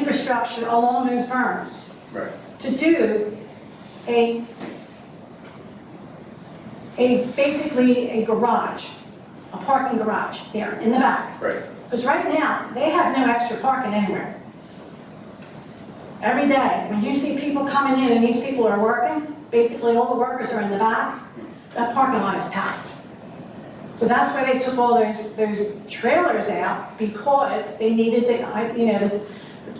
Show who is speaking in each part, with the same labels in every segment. Speaker 1: construction along those berms
Speaker 2: Right.
Speaker 1: to do a, a, basically a garage, a parking garage there in the back.
Speaker 2: Right.
Speaker 1: Because right now, they have no extra parking anywhere. Every day, when you see people coming in and these people are working, basically all the workers are in the back, that parking lot is packed. So that's why they took all those, those trailers out because they needed the, I- you know, the-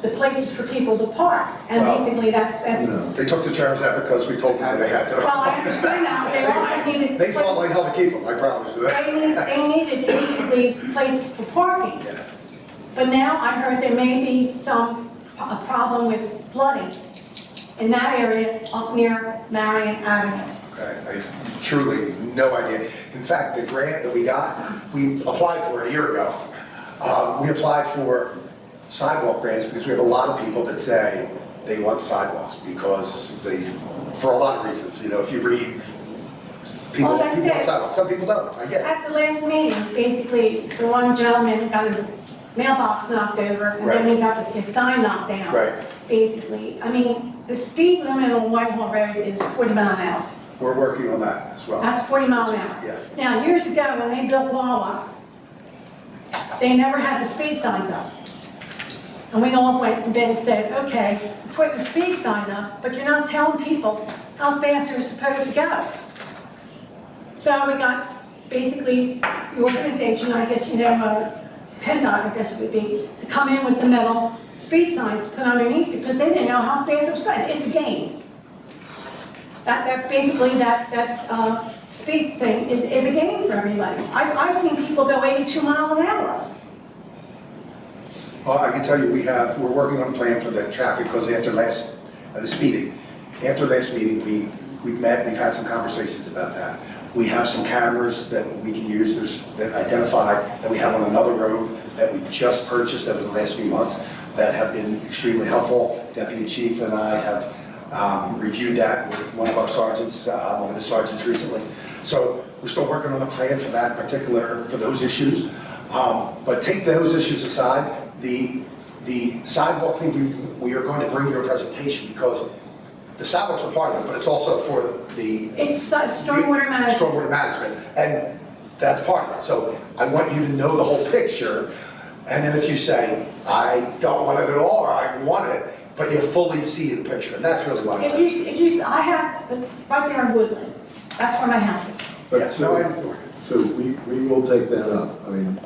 Speaker 1: the places for people to park. And
Speaker 2: Well,
Speaker 1: basically that's, that's,
Speaker 2: No, They took the terms out because we told them they had to.
Speaker 1: well, I understand now, they also needed.
Speaker 2: They fought like hell to keep them, I promise you that.
Speaker 1: They need- they needed basically place for parking.
Speaker 2: Yeah.
Speaker 1: But now I heard there may be some, a problem with flooding in that area up near Marion Avenue.
Speaker 2: I I truly, no idea. In fact, the grant that we got, we applied for it a year ago. Um, We applied for sidewalk grants because we have a lot of people that say they want sidewalks because they, for a lot of reasons, you know, if you read, people,
Speaker 1: Well, as I
Speaker 2: people want
Speaker 1: said-
Speaker 2: sidewalks, some people don't, I get it.
Speaker 1: At the last meeting, basically, the one gentleman got his mailbox knocked over, and then he got his sign knocked down.
Speaker 2: Right.
Speaker 1: Basically, I mean, the speed limit on Whitehall Road is 40 mile an hour.
Speaker 2: We're working on that as well.
Speaker 1: That's 40 mile an hour.
Speaker 2: Yeah.
Speaker 1: Now, years ago, when they built Wawa, they never had the speed signs up. And we all went and then said, okay, put the speed sign up, but you're not telling people how fast they're supposed to go. So we got basically the organization, I guess you know, uh, PennDOT, I guess it would be, to come in with the metal speed signs put underneath because they didn't know how fast it was going. It's a game. That, that, basically, that, that, uh, speed thing is, is a game for everybody. I've, I've seen people go eighty-two mile an hour.
Speaker 2: Well, Oh, I can tell you, we have, we're working on a plan for the traffic, because after last, uh, this meeting, after last meeting, we, we met, we've had some conversations about that. We have some cameras that we can use, there's, that identify, that we have on another road, that we just purchased over the last few months, that have been extremely helpful. Deputy Chief and I have um, reviewed that with one of our sergeants, uh, one of the sergeants recently. So we're still working on a plan for that particular, for those issues. Um, But take those issues aside, the, the sidewalk thing, we, we are going to bring you a presentation because the sidewalks are part of it, but it's also for the.
Speaker 1: It's uh, stormwater management.
Speaker 2: Stormwater management, and that's part of it. So I want you to know the whole picture. And then if you say, I don't want it at all, or I want it, but you fully see the picture, and that's really what I'm.
Speaker 1: If you, if you, I have, right there in Woodland, that's where my house is.
Speaker 2: Yeah,
Speaker 3: But
Speaker 2: so I-
Speaker 3: so, so we, we will take that up. I mean,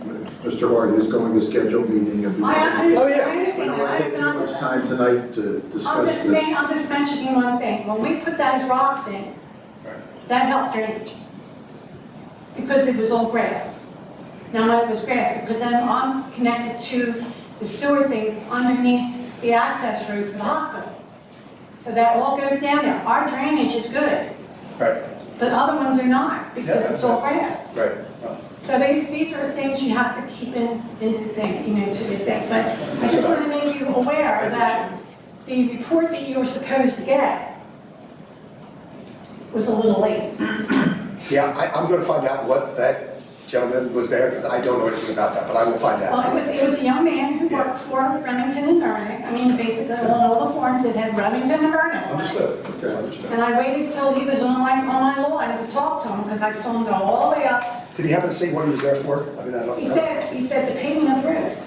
Speaker 3: Mr. Hart is going to schedule a meeting of the.
Speaker 1: I- I
Speaker 2: Oh, yeah.
Speaker 1: understand, I
Speaker 3: I
Speaker 1: understand that.
Speaker 3: don't want
Speaker 1: I
Speaker 3: to take
Speaker 1: have
Speaker 3: too
Speaker 1: not-
Speaker 3: much time tonight to
Speaker 1: I'm
Speaker 3: discuss
Speaker 1: just, ma-
Speaker 3: this.
Speaker 1: I'm just mentioning one thing. When we put those rocks in, that helped drainage. Because it was all grass. Now, no, it was grass, because then I'm connected to the sewer things underneath the access road for the hospital. So that all goes down there. Our drainage is good,
Speaker 2: Right,
Speaker 1: but other ones are not, because it's all grass.
Speaker 2: right. Well,
Speaker 1: So these, these are things you have to keep in, in the thing, you know, to the thing, but I just want to make you aware that the report that you were supposed to get was a little late.
Speaker 2: Yeah, I, I'm gonna find out what that gentleman was there, because I don't know anything about that, but I will find
Speaker 1: Well, it was,
Speaker 2: out.
Speaker 1: it was a young man who worked for Remington and Vernon, I mean, basically on all the forms it had Remington and Vernon. on it.
Speaker 2: Understood,
Speaker 3: Okay.
Speaker 2: understood.
Speaker 1: And I waited till he was on my, on my lawn to talk to him, because I saw him go all the way up.
Speaker 2: Did he happen to say what he was there for? I mean, I don't
Speaker 1: He
Speaker 2: know.
Speaker 1: said, he said the paving of the road,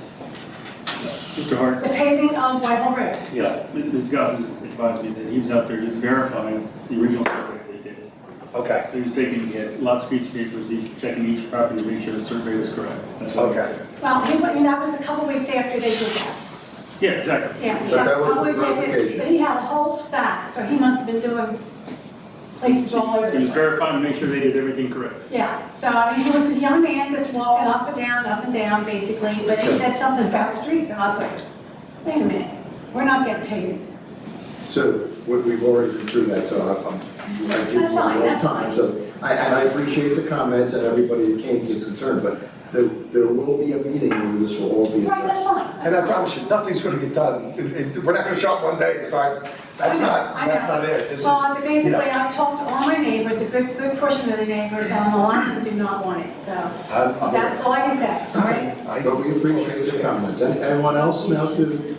Speaker 4: Mr. Hart,
Speaker 1: the paving of Whitehall Road.
Speaker 2: Yeah,
Speaker 4: Ms. Goff has advised me that he was out there just verifying the original survey that he did.
Speaker 2: okay,
Speaker 4: So he was taking, he had lots of piece of papers, he was checking each property to make sure the survey was correct. That's what he
Speaker 2: okay.
Speaker 1: Well, he, went- and that was a couple weeks after they did that.
Speaker 4: said. Yeah, exactly.
Speaker 1: Yeah,
Speaker 3: But
Speaker 1: exactly.
Speaker 3: that was
Speaker 1: I would
Speaker 3: the
Speaker 1: say that-
Speaker 3: verification.
Speaker 1: But he had a whole stack, so he must have been doing places all over.
Speaker 4: He was
Speaker 1: the place.
Speaker 4: verifying to make sure they did everything correct.
Speaker 1: Yeah, so I mean, he was a young man that's walking up and down, up and down, basically, but he said something about streets, and I was like, wait a minute, we're not getting paid.
Speaker 3: So we- we've already been through that, so I- I'm. I do
Speaker 1: That's fine,
Speaker 3: want more
Speaker 1: that's
Speaker 3: time.
Speaker 1: fine.
Speaker 3: So, I- and I appreciate the comments and everybody that came to this concern, but there, there will be a meeting where this will all be
Speaker 1: Right, that's
Speaker 3: addressed.
Speaker 1: fine.
Speaker 2: And I promise you, nothing's gonna get done. It- it- We're not gonna show up one day and start, that's
Speaker 1: I know,
Speaker 2: not,
Speaker 1: I
Speaker 2: that's
Speaker 1: know.
Speaker 2: not it. This is,
Speaker 1: Well,
Speaker 2: you
Speaker 1: basically,
Speaker 2: know,
Speaker 1: I've talked to all my neighbors, a good, good portion of the neighbors on the line who do not want it, so
Speaker 2: I'm- I'm-
Speaker 1: that's all I can say, all right?
Speaker 2: I-
Speaker 3: But we appreciate the comments. Any- Anyone else now to